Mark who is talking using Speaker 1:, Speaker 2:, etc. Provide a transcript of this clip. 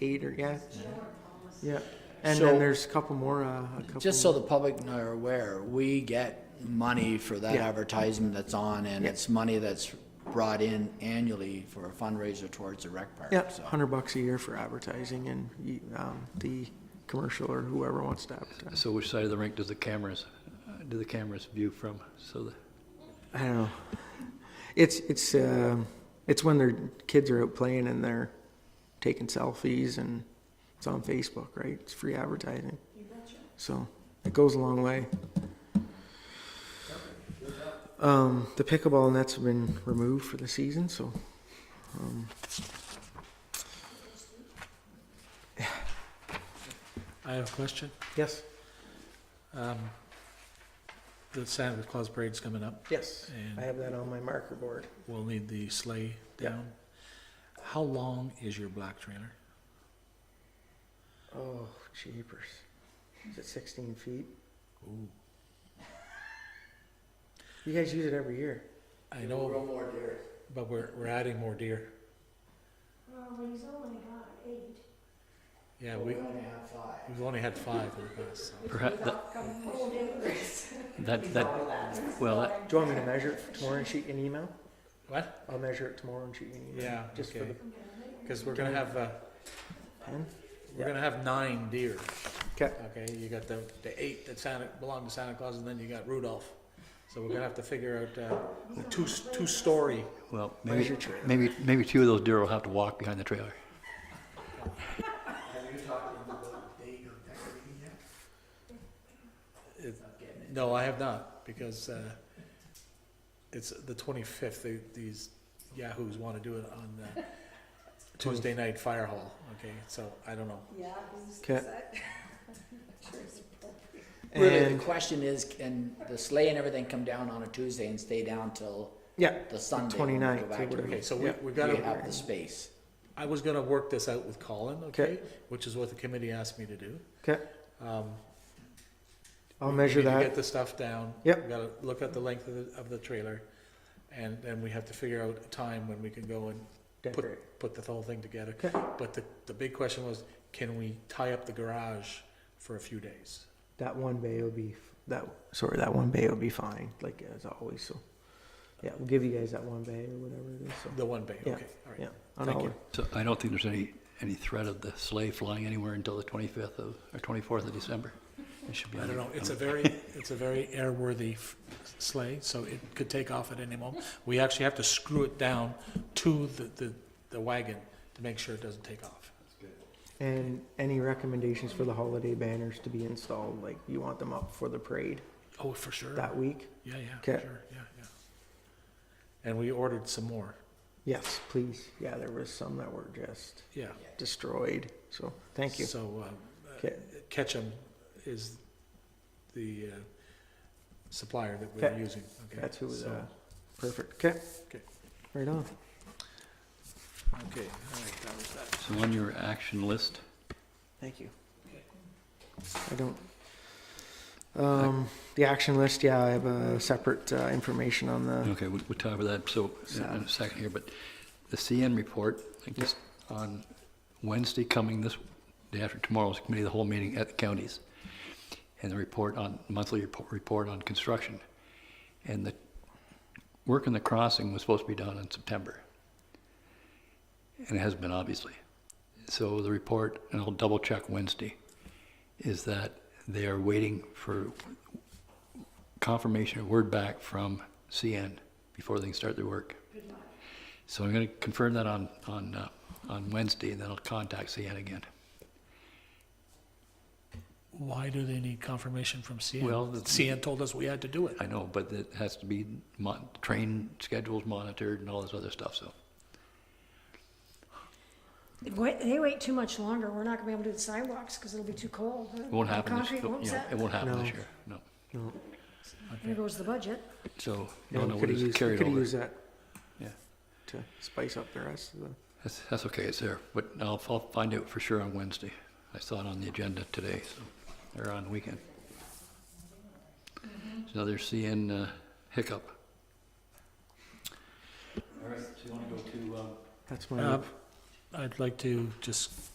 Speaker 1: eight or, yeah? Yeah, and
Speaker 2: So-
Speaker 1: then there's a couple more, uh, a couple.
Speaker 2: Just so the public are aware, we get money for that
Speaker 1: Yeah.
Speaker 2: advertisement that's on, and
Speaker 1: Yeah.
Speaker 2: it's money that's brought in annually for a fundraiser towards the rec park.
Speaker 1: Yeah,
Speaker 2: so.
Speaker 1: hundred bucks a year for advertising and, you- um, the commercial or whoever wants to advertise.
Speaker 3: So which side of the rink does the cameras, uh, do the cameras view from? So the,
Speaker 1: I don't know. It's, it's, um, it's when their kids are out playing and they're taking selfies and it's on Facebook, right? It's free advertising. So it goes a long way. Um, the pickleball nets have been removed for the season, so. um,
Speaker 4: I have a question.
Speaker 1: Yes,
Speaker 4: Um, The Santa Claus parade's coming up,
Speaker 1: yes. I
Speaker 4: and
Speaker 1: have that on my marker board.
Speaker 4: we'll need the sleigh
Speaker 1: Yeah.
Speaker 4: down. How long is your black trailer?
Speaker 1: Oh, jeepers. Is it 16 feet?
Speaker 4: Ooh.
Speaker 1: You guys use it every year.
Speaker 4: I know, but we're, we're adding more deer.
Speaker 5: Well, he's only got eight.
Speaker 4: Yeah, we, we've only had five in the past, so.
Speaker 3: perhaps, that,
Speaker 5: Old neighbors.
Speaker 3: that, that, well, that-
Speaker 1: Do you want me to measure it tomorrow and shoot you an email?
Speaker 4: What?
Speaker 1: I'll measure it tomorrow and shoot you an email.
Speaker 4: Yeah,
Speaker 1: Just for
Speaker 4: okay.
Speaker 1: the
Speaker 4: Because we're gonna have, uh,
Speaker 1: pen?
Speaker 4: we're gonna have nine deer,
Speaker 1: Okay,
Speaker 4: okay? You got the, the eight that Santa, belong to Santa Claus, and then you got Rudolph. So we're gonna have to figure out, uh, two, two-story.
Speaker 3: well,
Speaker 1: where's
Speaker 3: maybe,
Speaker 1: your trailer?
Speaker 3: maybe, maybe two of those deer will have to walk behind the trailer.
Speaker 4: It- No, I have not, because uh, it's the 25th, They- these yahoos want to do it on uh, Tuesday night fire hall, okay? So I don't know.
Speaker 5: Yeah.
Speaker 1: okay.
Speaker 2: Really, the
Speaker 1: And,
Speaker 2: question is, can the sleigh and everything come down on a Tuesday and stay down till
Speaker 1: yeah,
Speaker 2: the Sunday? when we go
Speaker 1: 29th,
Speaker 2: back
Speaker 1: so
Speaker 2: to
Speaker 1: whatever.
Speaker 4: Okay, so we
Speaker 1: Yeah.
Speaker 4: we
Speaker 2: Do
Speaker 4: got
Speaker 2: you
Speaker 4: to,
Speaker 2: have the space?
Speaker 4: I was going to work this out with Colin, okay?
Speaker 1: Okay.
Speaker 4: Which is what the committee asked me to do.
Speaker 1: okay,
Speaker 4: Um,
Speaker 1: I'll
Speaker 4: we
Speaker 1: measure
Speaker 4: need to Get
Speaker 1: that.
Speaker 4: the stuff down.
Speaker 1: Yep.
Speaker 4: We gotta look at the length of the, of the trailer, and then we have to figure out a time when we can go and
Speaker 1: Decorate.
Speaker 4: put, put the whole thing together.
Speaker 1: Okay.
Speaker 4: But the, the big question was, can we tie up the garage for a few days?
Speaker 1: That one bay will be, f- that, sorry, that one bay will be fine, like as always, so. Yeah, we'll give you guys that one bay or whatever it is, so,
Speaker 4: The one bay,
Speaker 1: Yeah.
Speaker 4: okay, all
Speaker 1: yeah.
Speaker 4: right.
Speaker 1: on
Speaker 4: Thank
Speaker 1: all
Speaker 4: you.
Speaker 1: of-
Speaker 3: So I don't think there's any, any threat of the sleigh flying anywhere until the 25th of, or 24th of December. It should be.
Speaker 4: I
Speaker 3: on
Speaker 4: don't
Speaker 3: the-
Speaker 4: know, it's a
Speaker 3: on the-
Speaker 4: very, it's a very airworthy f- sleigh, so it could take off at any moment. We actually have to screw it down to the, the, the wagon to make sure it doesn't take off.
Speaker 1: And any recommendations for the holiday banners to be installed, like you want them up for the parade
Speaker 4: Oh, for sure.
Speaker 1: that week?
Speaker 4: Yeah, yeah,
Speaker 1: Okay.
Speaker 4: sure, yeah, yeah. And we ordered some more,
Speaker 1: Yes, please. Yeah, there was some that were just
Speaker 4: yeah.
Speaker 1: destroyed, so, thank you.
Speaker 4: So, uh,
Speaker 1: Okay,
Speaker 4: Ketchum is the uh, supplier that we're
Speaker 1: Okay.
Speaker 4: using, okay?
Speaker 1: that's who was,
Speaker 4: So-
Speaker 1: uh, perfect, okay.
Speaker 4: Okay.
Speaker 1: Right on.
Speaker 4: Okay, all right, that was that.
Speaker 3: So on your action list,
Speaker 1: Thank you. I don't, um, the action list, yeah, I have a separate, uh, information on the,
Speaker 3: Okay, we'll, we'll talk about that, so, in in a second here, but the CN report, I guess, on Wednesday coming this, day after tomorrow's committee, of the whole meeting at the counties, and the report on, monthly report, report on construction. And the work in the crossing was supposed to be done in September. And it hasn't been, obviously. So the report, and I'll double check Wednesday, is that they are waiting for confirmation or word back from CN before they can start their work. So I'm going to confirm that on, on, uh, on Wednesday, and then I'll contact CN again.
Speaker 4: Why do they need confirmation from CN?
Speaker 3: Well, the-
Speaker 4: CN told us we had to do it.
Speaker 3: I know, but it has to be, mon- train schedules monitored and all this other stuff, so.
Speaker 5: Wait, they wait too much longer, we're not gonna be able to do the sidewalks, cause it'll be too cold.
Speaker 3: It won't happen this,
Speaker 5: Concrete won't
Speaker 3: yeah,
Speaker 5: set,
Speaker 3: it won't happen this
Speaker 1: No.
Speaker 3: year, no.
Speaker 1: no.
Speaker 5: there goes the budget.
Speaker 3: So,
Speaker 1: yeah,
Speaker 3: no,
Speaker 1: we
Speaker 3: no, what
Speaker 1: could've
Speaker 3: is
Speaker 1: used- we
Speaker 3: carried
Speaker 1: Could've
Speaker 3: over.
Speaker 1: used that.
Speaker 3: Yeah.
Speaker 1: To spice up the rest of the,
Speaker 3: That's, that's okay, it's there, but I'll, I'll find out for sure on Wednesday. I saw it on the agenda today, so, or on the weekend. It's another CN uh, hiccup. All right, so you wanna go to, um,
Speaker 1: that's
Speaker 4: Uh,
Speaker 1: my,
Speaker 4: I'd like to just